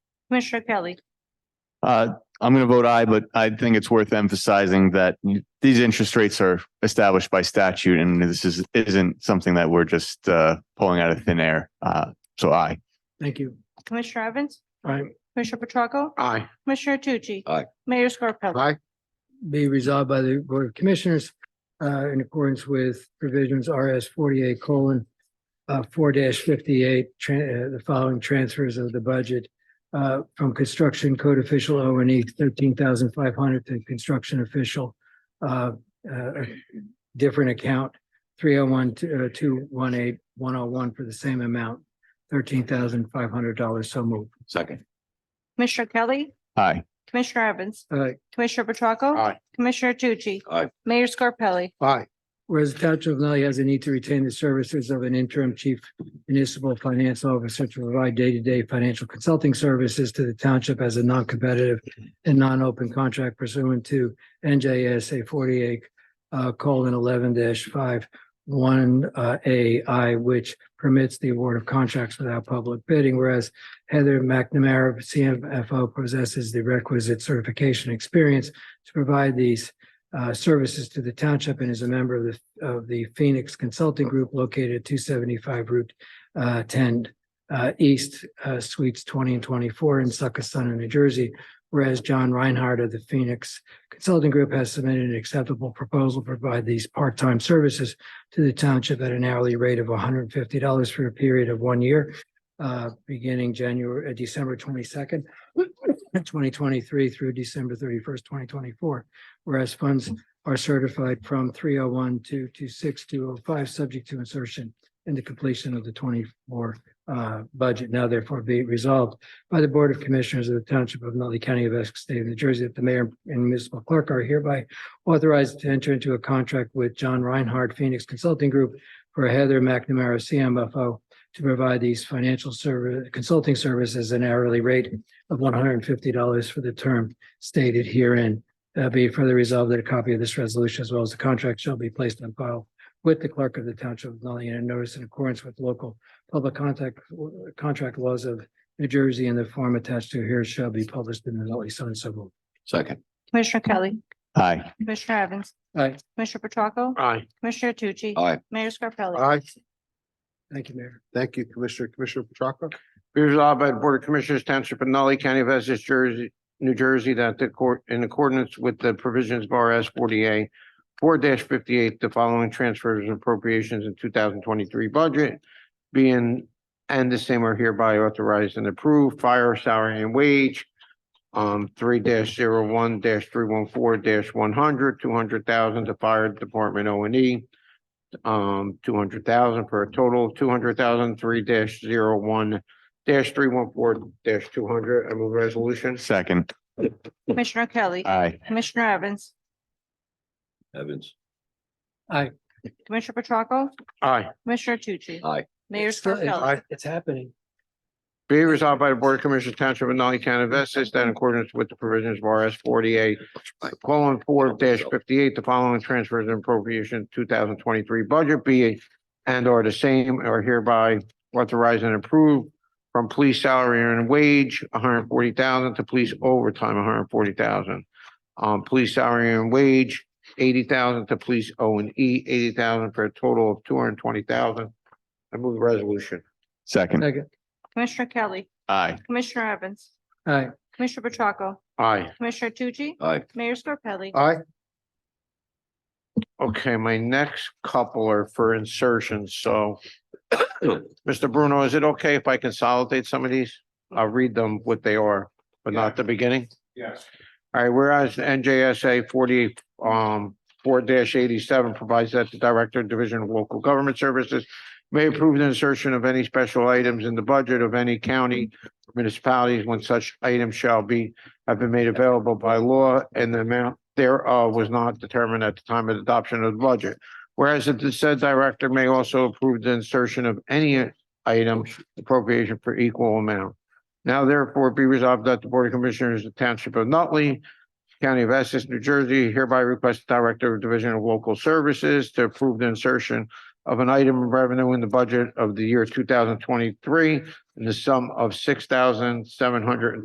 Commissioner Kelly. Uh, I'm going to vote aye, but I think it's worth emphasizing that these interest rates are established by statute and this is, isn't something that we're just, uh, pulling out of thin air. Uh, so aye. Thank you. Commissioner Evans. Aye. Commissioner Petracca. Aye. Commissioner Tucci. Aye. Mayor Scarpelli. Aye. Be resolved by the Board of Commissioners uh, in accordance with provisions RS forty-eight colon uh, four fifty-eight, uh, the following transfers of the budget uh, from construction code official O and E thirteen thousand five hundred to construction official uh, uh, different account three oh one two one eight one oh one for the same amount, thirteen thousand five hundred dollars. So moved. Second. Commissioner Kelly. Aye. Commissioner Evans. Uh, Commissioner Petracca. Aye. Commissioner Tucci. Aye. Mayor Scarpelli. Aye. Whereas the Township of Nutley has a need to retain the services of an interim chief municipal finance officer to provide day-to-day financial consulting services to the township as a non-competitive and non-open contract pursuant to NJSA forty-eight uh, colon eleven five one uh, AI, which permits the award of contracts without public bidding. Whereas Heather McNamara, CMFO, possesses the requisite certification experience to provide these uh, services to the township and is a member of the, of the Phoenix Consulting Group located at two seventy-five Route uh, ten uh, East, uh, Suites twenty and twenty-four in Succothon, New Jersey. Whereas John Reinhardt of the Phoenix Consulting Group has submitted an acceptable proposal to provide these part-time services to the township at an hourly rate of hundred and fifty dollars for a period of one year, uh, beginning January, uh, December twenty-second, twenty twenty-three through December thirty-first, twenty twenty-four. Whereas funds are certified from three oh one to two six two oh five, subject to insertion in the completion of the twenty-four uh budget. Now therefore be resolved by the Board of Commissioners of the Township of Nutley County of Essex State of New Jersey that the mayor and municipal clerk are hereby authorized to enter into a contract with John Reinhardt Phoenix Consulting Group for Heather McNamara CMFO to provide these financial service consulting services at an hourly rate of one hundred and fifty dollars for the term stated herein. Uh, be it further resolved that a copy of this resolution as well as the contract shall be placed on file with the clerk of the township of Nutley and a notice in accordance with local public contact, contract laws of New Jersey and the form attached to here shall be published in the Nutley Sun. So moved. Second. Commissioner Kelly. Aye. Commissioner Evans. Aye. Commissioner Petracca. Aye. Commissioner Tucci. Aye. Mayor Scarpelli. Aye. Thank you, Mayor. Thank you, Commissioner. Commissioner Petracca. Be resolved by the Board of Commissioners Township of Nutley County of Essex, Jersey, New Jersey, that the court, in accordance with the provisions of RS forty-eight four fifty-eight, the following transfers and appropriations in two thousand twenty-three budget being, and the same are hereby authorized and approved, fire salary and wage, um, three dash zero one dash three one four dash one hundred, two hundred thousand to fire department O and E, um, two hundred thousand for a total of two hundred thousand, three dash zero one dash three one four dash two hundred. I move resolution. Second. Commissioner Kelly. Aye. Commissioner Evans. Evans. Commissioner Petracca. Aye. Commissioner Tucci. Aye. Mayor It's still- it's- Scarpelli. It's happening. Be resolved by the Board of Commissioners Township of Nutley County of Essex that in accordance with the provisions of RS forty-eight colon four dash fifty-eight, the following transfers and appropriation two thousand twenty-three budget be and are the same are hereby authorized and approved from police salary and wage, hundred and forty thousand to police overtime, hundred and forty thousand. Um, police salary and wage, eighty thousand to police O and E, eighty thousand for a total of two hundred and twenty thousand. I move the resolution. Second. Second. Commissioner Kelly. Aye. Commissioner Evans. Aye. Commissioner Petracca. Aye. Commissioner Tucci. Aye. Mayor Scarpelli. Aye. Okay, my next couple are for insertions, so. Mr. Bruno, is it okay if I consolidate some of these? I'll read them what they are, but not the beginning? Yes. All right, whereas NJSA forty, um, four eighty-seven provides that the Director of Division of Local Government Services may approve the insertion of any special items in the budget of any county or municipalities when such items shall be, have been made available by law and the amount thereof was not determined at the time of adoption of the budget. Whereas the said director may also approve the insertion of any item appropriation for equal amount. Now therefore be resolved that the Board of Commissioners of the Township of Nutley County of Essex, New Jersey hereby request the Director of Division of Local Services to approve the insertion of an item of revenue in the budget of the year two thousand twenty-three in the sum of six thousand seven hundred and